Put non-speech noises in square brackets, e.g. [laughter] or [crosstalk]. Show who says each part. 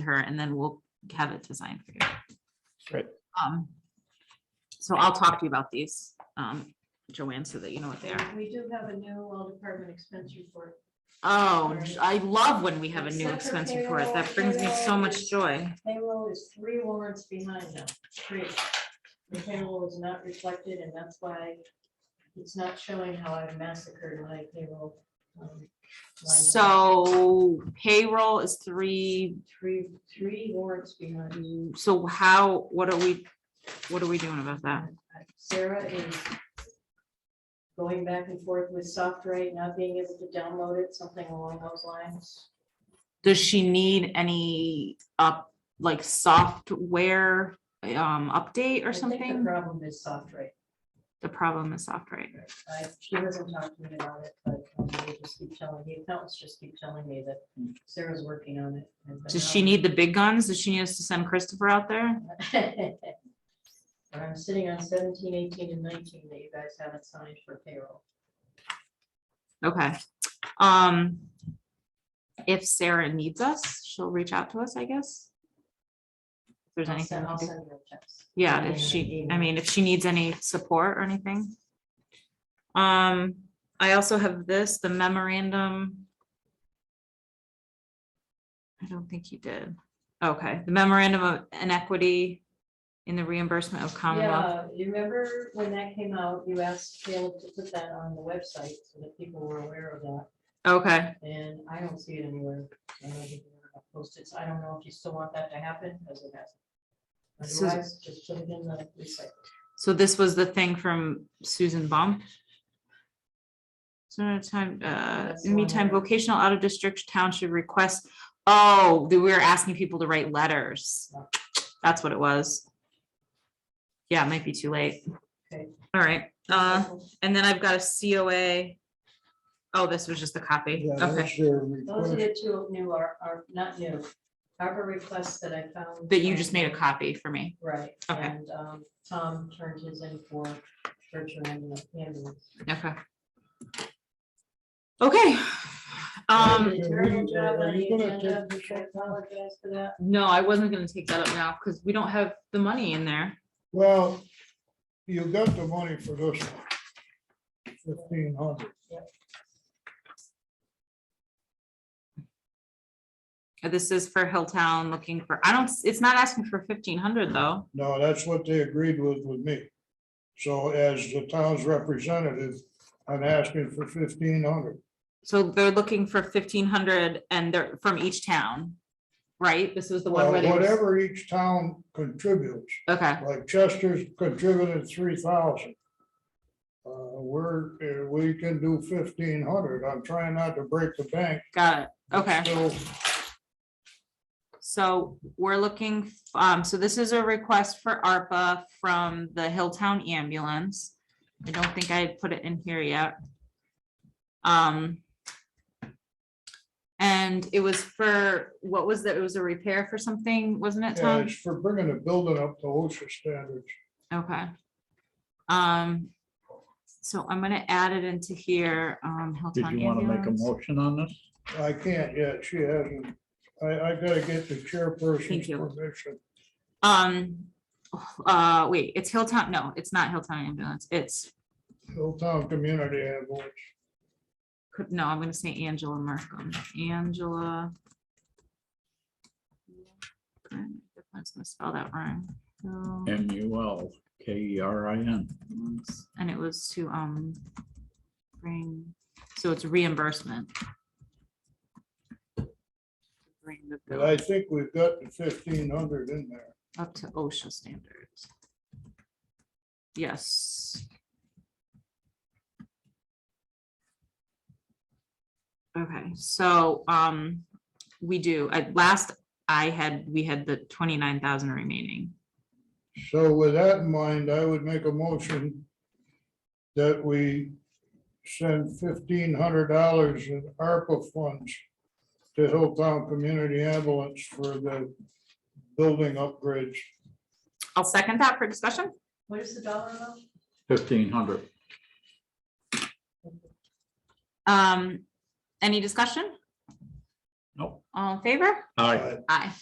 Speaker 1: to her and then we'll have it designed for you.
Speaker 2: Great.
Speaker 1: Um, so I'll talk to you about these, um, Joanne, so that you know what they are.
Speaker 3: We do have a new all department expense report.
Speaker 1: Oh, I love when we have a new expense report. That brings me so much joy.
Speaker 3: Payroll is three warrants behind now, three. The payroll is not reflected and that's why it's not showing how I massacred my payroll. um, line item.
Speaker 1: So payroll is three,
Speaker 3: Three, three warrants behind.
Speaker 1: so how, what are we, what are we doing about that?
Speaker 3: Sarah is going back and forth with SoftWrite, not being able to download it, something along those lines.
Speaker 1: Does she need any up, like software, um, update
Speaker 3: I
Speaker 1: or
Speaker 3: think
Speaker 1: something?
Speaker 3: The problem is SoftWrite.
Speaker 1: The problem is software.
Speaker 3: I, she hasn't talked to me about it, but um, they just keep telling, the accountants just keep telling me that Sarah's working on it. and-
Speaker 1: Does she need the big guns? Does she need us to send Christopher out there?
Speaker 3: [laughs] But I'm sitting on 17, 18, and nineteen that you guys haven't signed for payroll.
Speaker 1: Okay. Um. If Sarah needs us, she'll reach out to us, I guess. If there's
Speaker 3: I'll
Speaker 1: anything,
Speaker 3: send-
Speaker 1: we
Speaker 3: I'll
Speaker 1: can do.
Speaker 3: send her a text.
Speaker 1: yeah,
Speaker 3: Send
Speaker 1: if
Speaker 3: her an
Speaker 1: she, I
Speaker 3: email.
Speaker 1: mean, if she needs any support or anything. Um, I also have this, the memorandum. I don't think you did. Okay, the memorandum of inequity in the reimbursement of Commonwealth.
Speaker 3: Yeah, you remember when that came out, you asked Caleb to put that on the website so that people were aware of that.
Speaker 1: Okay.
Speaker 3: And I don't see it anywhere. I don't think we're gonna Post it. I don't know if you still want that to happen, because it hasn't.
Speaker 1: So-
Speaker 3: Otherwise, just put it in the recycle.
Speaker 1: So this was the thing from Susan Bump. So no time, uh,
Speaker 3: That's the
Speaker 1: in
Speaker 3: one
Speaker 1: meantime,
Speaker 3: where-
Speaker 1: vocational out of district town should request, oh, that we were asking people to write letters.
Speaker 3: Yeah.
Speaker 1: That's what it was. Yeah, it might be too late.
Speaker 3: Okay.
Speaker 1: All right, uh, and then I've got a COA. Oh, this was just the copy.
Speaker 2: Yeah,
Speaker 1: Okay,
Speaker 2: that's your
Speaker 3: Those are
Speaker 2: request.
Speaker 3: the two new are, are not new. Harbor requests that I found.
Speaker 1: that you
Speaker 3: um,
Speaker 1: just made a copy for me.
Speaker 3: Right.
Speaker 1: Okay.
Speaker 3: And um, Tom turned his in for virtual ambulance.
Speaker 1: Okay. Okay. Um,
Speaker 3: Did a terrible job on
Speaker 2: Are
Speaker 3: the
Speaker 2: you gonna
Speaker 3: agenda.
Speaker 2: take this
Speaker 3: I
Speaker 2: up now?
Speaker 3: apologize for that.
Speaker 1: no, I wasn't gonna take that up now because we don't have the money in there.
Speaker 2: Well, you got the money for this one. Fifteen hundred.
Speaker 1: This is for Hilltown looking for, I don't, s- it's not asking for fifteen hundred though.
Speaker 2: No, that's what they agreed with with me. So as the town's representative, I'm asking for fifteen hundred.
Speaker 1: So they're looking for fifteen hundred and they're from each town, right? This was the one where they. was-
Speaker 2: Whatever each town contributes,
Speaker 1: Okay,
Speaker 2: like Chester's contributed three thousand. Uh, we're, uh, we can do fifteen hundred. I'm trying not to break the bank.
Speaker 1: got it.
Speaker 2: but
Speaker 1: Okay.
Speaker 2: still
Speaker 1: So we're looking, f- um, so this is a request for ARPA from the Hilltown ambulance. I don't think I put it in here yet. Um. And it was for, what was that? It was a repair for something, wasn't it,
Speaker 2: Yeah,
Speaker 1: Tom?
Speaker 2: it's for bringing the building up to OSHA standards.
Speaker 1: Okay. Um, so I'm gonna add it into here, um,
Speaker 4: Did
Speaker 1: Hilltown
Speaker 4: you want to make a
Speaker 1: ambulance.
Speaker 4: motion on this?
Speaker 2: I can't yet, she hasn't. I, I gotta get the
Speaker 1: Thank
Speaker 2: chairperson's
Speaker 1: you.
Speaker 2: permission.
Speaker 1: Um, uh, wait, it's Hilltown, no, it's not Hilltown ambulance, it's,
Speaker 2: Hilltown Community Ambulance.
Speaker 1: could- no, I'm gonna say Angela Markham, Angela. I'm just gonna spell that wrong. So,
Speaker 4: M U L K E R I N.
Speaker 1: And it was to, um, bring, so it's reimbursement. Bring the
Speaker 2: But
Speaker 1: bill.
Speaker 2: I think we've got the fifteen hundred in there.
Speaker 1: up to OSHA standards. Yes. Okay, so, um, we do, at last I had, we had the twenty-nine thousand remaining.
Speaker 2: So with that in mind, I would make a motion that we send fifteen hundred dollars in ARPA funds to Hilltown Community Ambulance for the building upgrades.
Speaker 1: I'll second that for discussion.
Speaker 3: What is the dollar amount?
Speaker 4: Fifteen hundred.
Speaker 1: Um, any discussion?
Speaker 4: Nope.
Speaker 1: All in favor?
Speaker 4: Aye.
Speaker 2: Uh,
Speaker 1: Aye.